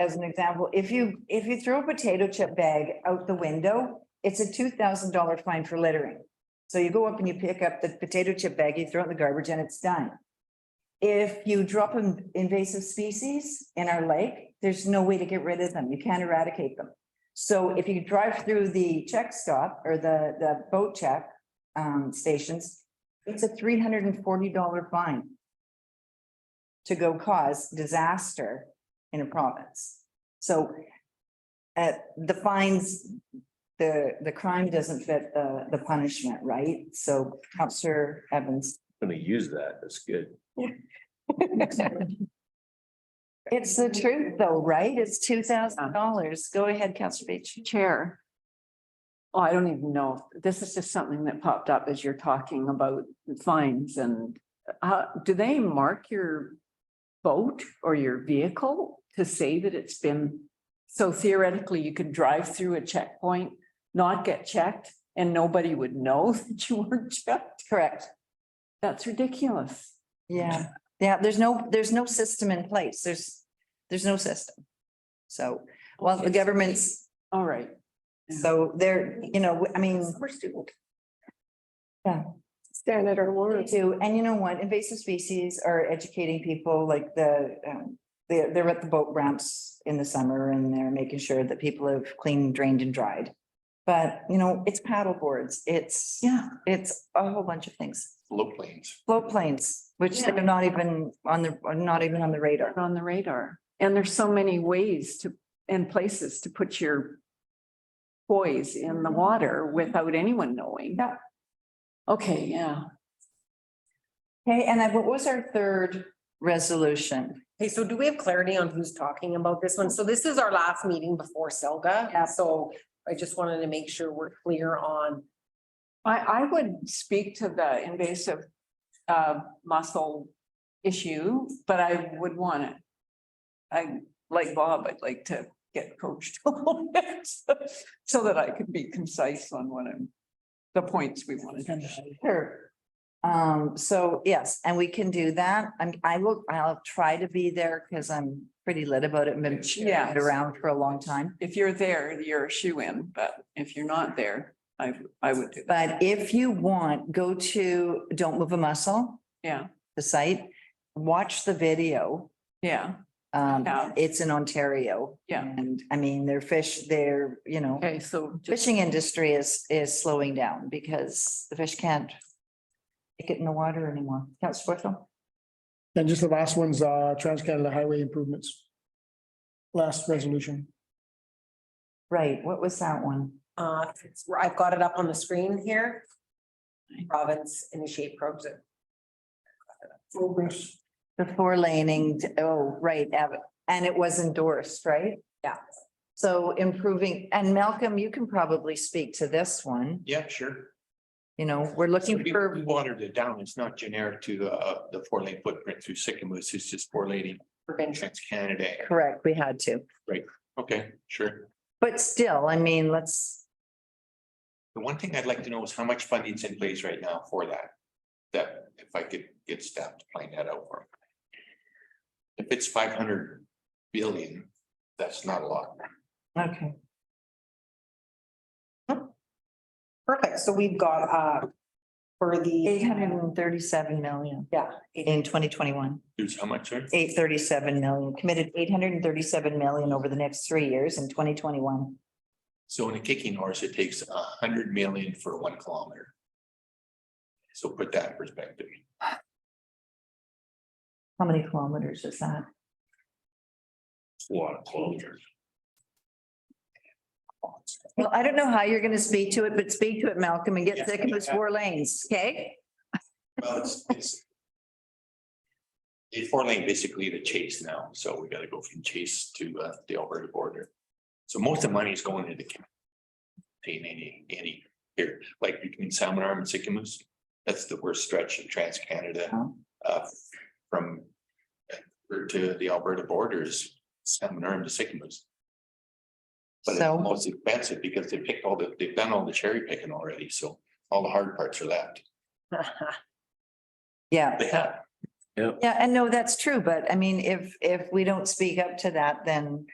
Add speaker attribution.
Speaker 1: as an example, if you, if you throw a potato chip bag out the window, it's a two thousand dollar fine for littering. So you go up and you pick up the potato chip bag, you throw it in the garbage and it's done. If you drop an invasive species in our lake, there's no way to get rid of them. You can't eradicate them. So if you drive through the check stop or the, the boat check, um, stations, it's a three hundred and forty dollar fine to go cause disaster in a province. So uh, the fines, the, the crime doesn't fit the, the punishment, right? So Counselor Evans.
Speaker 2: Gonna use that, that's good.
Speaker 1: It's the truth though, right? It's two thousand dollars. Go ahead, Counselor Beach.
Speaker 3: Chair. Oh, I don't even know. This is just something that popped up as you're talking about fines and uh, do they mark your boat or your vehicle to say that it's been? So theoretically, you could drive through a checkpoint, not get checked, and nobody would know that you weren't checked.
Speaker 1: Correct.
Speaker 3: That's ridiculous.
Speaker 1: Yeah, yeah, there's no, there's no system in place. There's, there's no system. So, well, the government's,
Speaker 3: All right.
Speaker 1: so they're, you know, I mean.
Speaker 4: Summer student.
Speaker 1: Yeah.
Speaker 4: Stand at our
Speaker 1: They
Speaker 4: warrants.
Speaker 1: do, and you know what, invasive species are educating people, like the, um, they're, they're at the boat ramps in the summer and they're making sure that people have cleaned, drained and dried. But, you know, it's paddle boards, it's,
Speaker 3: Yeah.
Speaker 1: it's a whole bunch of things,
Speaker 2: Low planes.
Speaker 1: float planes, which they're not even on the, are not even on the radar.
Speaker 3: aren't on the radar. And there's so many ways to, and places to put your boys in the water without anyone knowing.
Speaker 1: Yeah.
Speaker 3: Okay, yeah.
Speaker 1: Okay, and then what was our third resolution?
Speaker 4: Okay, so do we have clarity on who's talking about this one? So this is our last meeting before
Speaker 1: Yeah.
Speaker 4: Selga, so I just wanted to make sure we're clear on.
Speaker 3: I, I would speak to the invasive uh, mussel issue, but I would want it. I, like Bob, I'd like to get coached a little bit so that I could be concise on what I'm, the points we wanted to.
Speaker 1: Sure. Um, so yes, and we can do that. I'm, I will, I'll try to be there because I'm pretty lit about it and been sharing
Speaker 3: Yeah.
Speaker 1: it around for a long time.
Speaker 3: if you're there, you're a shoe in, but if you're not there, I, I would do that.
Speaker 1: But if you want, go to Don't Move a Muscle,
Speaker 3: Yeah,
Speaker 1: the site, watch the video.
Speaker 3: yeah.
Speaker 1: Um,
Speaker 3: Yeah.
Speaker 1: it's in Ontario.
Speaker 3: Yeah.
Speaker 1: And I mean, their fish, their, you know,
Speaker 3: Okay, so just,
Speaker 1: fishing industry is, is slowing down because the fish can't take it in the water anymore. Counselor Bushel?
Speaker 5: And just the last one's uh Trans Canada Highway Improvements. Last resolution.
Speaker 1: Right, what was that one?
Speaker 4: Uh, it's- I've got it up on the screen here. Province initiate project.
Speaker 5: Progress.
Speaker 1: The four laning, oh, right, Ab- and it was endorsed, right?
Speaker 4: Yeah.
Speaker 1: So improving, and Malcolm, you can probably speak to this one,
Speaker 2: Yeah, sure.
Speaker 1: you know, we're
Speaker 2: So
Speaker 1: looking
Speaker 2: We
Speaker 1: for,
Speaker 2: we watered it down. It's not generic to uh the four lane footprint through Sycamus. It's just four lane trans Canada.
Speaker 1: correct, we had to,
Speaker 2: Okay, sure.
Speaker 1: but still, I mean, let's,
Speaker 2: The one thing I'd like to know is how much funding's in place right now for that? That if I could get staff to find that out for me. If it's five hundred billion, that's not a lot.
Speaker 1: okay,
Speaker 4: Perfect, so we've got, uh, for the.
Speaker 1: eight hundred and thirty-seven million
Speaker 4: Yeah.
Speaker 1: in twenty twenty-one.
Speaker 2: There's how much, sir?
Speaker 1: Eight thirty-seven million, committed eight hundred and thirty-seven million over the next three years in twenty twenty-one.
Speaker 2: So in a kicking horse, it takes a hundred million for one kilometer. So put that in perspective.
Speaker 1: How many kilometers is that?
Speaker 2: It's a lot of kilometers.
Speaker 1: Well, I don't know how you're gonna speak to it, but speak to it, Malcolm, and
Speaker 2: Yeah.
Speaker 1: get sick of those four lanes, okay?
Speaker 2: Well, it's, it's. A four lane basically to Chase now, so we gotta go from Chase to uh, the Alberta border. So most of the money is going into. Canada. Paying any, any here, like between Salmon Arm and Sycamus, that's the worst stretch of Trans Canada.
Speaker 1: Oh.
Speaker 2: Uh, from. uh, To the Alberta borders, Salmon Arm to Sycamus. But it's
Speaker 1: So-
Speaker 2: most expensive because they picked all the, they've done all the cherry picking already, so all the hard parts are left.
Speaker 1: Yeah,
Speaker 2: They have.
Speaker 1: yeah, and no, that's true, but I mean, if, if we don't speak up to that, then